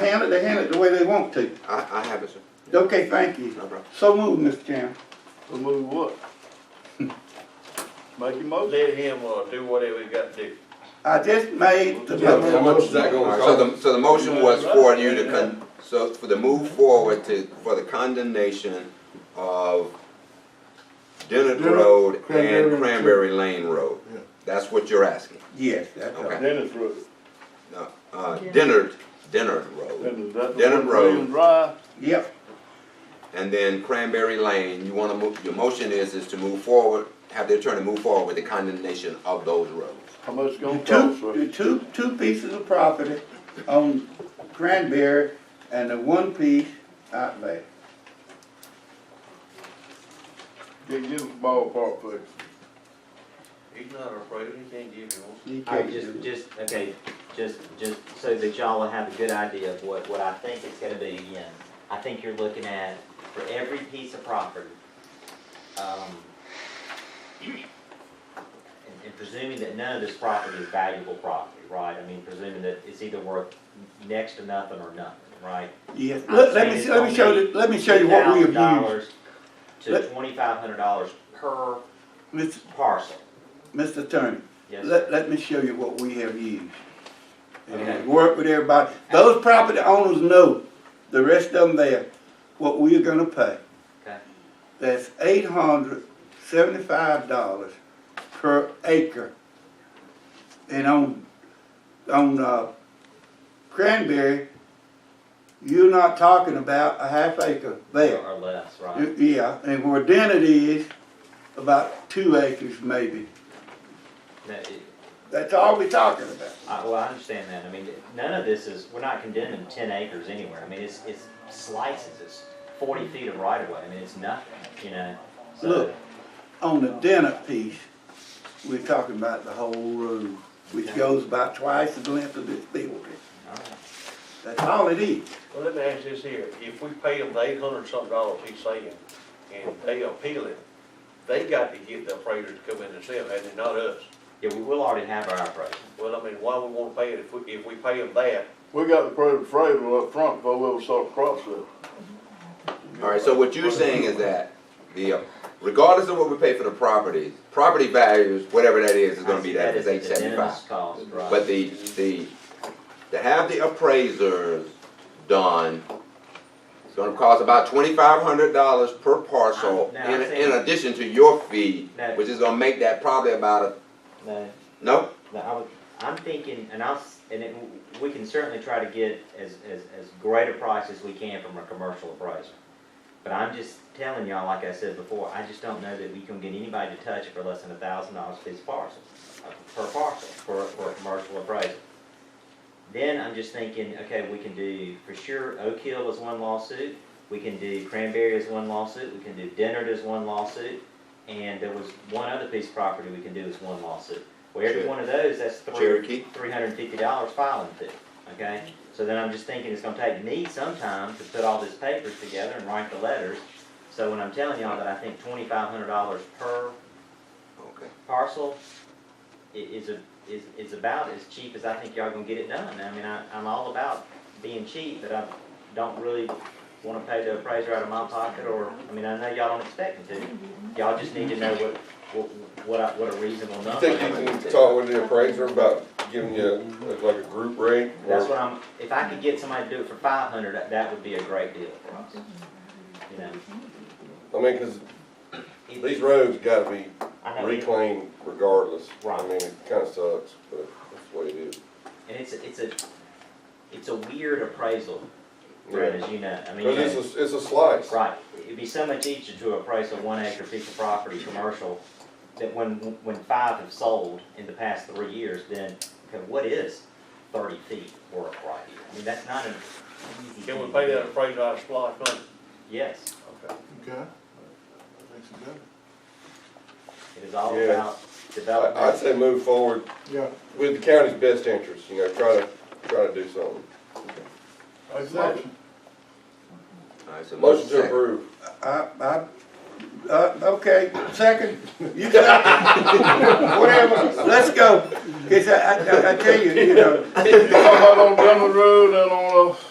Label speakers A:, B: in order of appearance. A: ham it, they ham it the way they want to.
B: I, I have it, sir.
A: Okay, thank you.
B: No problem.
A: So moved, Mr. Chairman.
C: Remove what? Make your motion.
D: Let him, uh, do whatever he got to do.
A: I just made the
E: How
A: motion.
E: much is that
B: All
E: gonna
B: right, So
E: cost?
B: the, so the motion was for you to con, so for the move forward to, for the condemnation of Dennett
E: Dennett,
B: Road and
E: Cranberry Lane.
B: Cranberry Lane Road.
E: Yeah.
B: That's what you're asking.
A: Yes, that's all.
B: Okay.
C: Dennis Road.
B: No, uh, Dennett, Dennett Road,
C: Dennis, that's
B: Dennis
C: the one
B: Road.
C: William Drive.
A: Yep,
B: and then Cranberry Lane, you wanna move, your motion is, is to move forward, have the attorney move forward with the condemnation of those roads.
C: How much it's gonna cost, sir?
A: two, two, two pieces of property on Cranberry and the one piece out there.
C: Give, give us a ballpark figure.
D: He's not afraid, he can't give you one.
A: You
F: I
A: can't do
F: just,
A: it.
F: just, okay, just, just so that y'all will have a good idea of what, what I think it's gonna be again. I think you're looking at, for every piece of property, um, and- and presuming that none of this property is valuable property, right? I mean, presuming that it's either worth next to nothing or nothing, right?
A: Yes, let, let me, see- let me show you, let me show you what we have used.
F: $2,000 To
A: Let-
F: twenty-five hundred dollars per
A: Mr.
F: parcel,
A: Mr. Attorney,
F: yes, sir.
A: let, let me show you what we have used.
F: Okay.
A: And work with everybody. Those property owners know, the rest of them there, what we are gonna pay.
F: Okay.
A: That's eight hundred seventy-five dollars per acre. And on, on, uh, Cranberry, you're not talking about a half acre there.
F: Or less, right?
A: Yeah, and where Dennett is, about two acres maybe.
F: No, it-
A: That's all we're talking about.
F: I, well, I understand that. I mean, none of this is, we're not condemning ten acres anywhere. I mean, it's, it's slices, it's forty feet of right of way. I mean, it's nothing, you know? So,
A: Look. On the Dennett piece, we're talking about the whole road, which goes about twice the length of this building.
F: all right.
A: That's all it is.
D: Well, let me ask this here, if we pay him the eight hundred something dollars he's saying, and they appeal it, they got to get the appraiser to come in and sell, hadn't they, not us?
F: Yeah, we will already have our appraisal.
D: Well, I mean, why we wanna pay it if we, if we pay him that?
C: We got the private appraisal up front before we ever start crossing.
B: All right, so what you're saying is that the, uh, regardless of what we pay for the property, property values, whatever that is, is gonna be that,
F: That is
B: it's
F: the
B: eight
F: de minimis
B: seventy-five.
F: cost, right?
B: But the, the, to have the appraisers done, it's gonna cost about twenty-five hundred dollars per parcel
F: I'm- now
B: in,
F: I'm
B: in
F: saying-
B: addition to your fee,
F: Now-
B: which is gonna make that probably about a,
F: No,
B: no?
F: no, I would, I'm thinking, and I'll, s- and it, we can certainly try to get as, as, as great a price as we can from a commercial appraiser. But I'm just telling y'all, like I said before, I just don't know that we can get anybody to touch it for less than a thousand dollars per parcel, uh, per parcel, for, for a commercial appraisal. Then I'm just thinking, okay, we can do, for sure, Oak Hill is one lawsuit, we can do Cranberry as one lawsuit, we can do Dennard as one lawsuit, and there was one other piece of property we can do as one lawsuit. Well, every
B: Sure.
F: one of those, that's three,
B: Cherokee?
F: three hundred and fifty dollars filing fee, okay? So then I'm just thinking it's gonna take me some time to put all this papers together and write the letters. So when I'm telling y'all that I think twenty-five hundred dollars per
B: Okay.
F: parcel i- is a, is, is about as cheap as I think y'all gonna get it done. I mean, I, I'm all about being cheap, but I don't really wanna pay the appraiser out of my pocket or, I mean, I know y'all don't expect me to. Y'all just need to know what, what, what I, what a reasonable
E: You
F: number
E: think
F: is.
E: you can talk with the appraiser about giving you like a group rate? or-
F: That's what I'm, if I could get somebody to do it for five hundred, that, that would be a great deal for us. You know?
E: I mean, cause
F: it-
E: these roads gotta be
F: I know, it-
E: reclaimed regardless. I
F: Right.
E: mean, it kinda sucks, but that's the way it is.
F: and it's, a- it's a, it's a weird appraasal, Brad,
E: Yeah.
F: as you know, I mean. you
E: Cause
F: know-
E: it's a, it's a slice.
F: Right, it'd be so much easier to appraise a one acre piece of property, commercial, that when, when five have sold in the past three years, then, okay, what is thirty feet worth right here? I mean, that's not an easy.
D: Can we
F: thing to
D: pay
F: do.
D: that appraiser out of splash money?
F: Yes,
D: Okay.
C: Okay.
F: it is all
E: Yeah.
F: about
E: I, I'd
F: development,
E: say move forward.
C: Yeah.
E: With the county's best interest, you know, try to, try to do something.
C: Exactly.
B: All right, so
E: Motion to
B: second.
E: approve.
A: I, I, uh, okay, second, you second, whatever, let's go. It's, I, I, I tell you, you know,
C: Talking about on Denver Road and on, uh,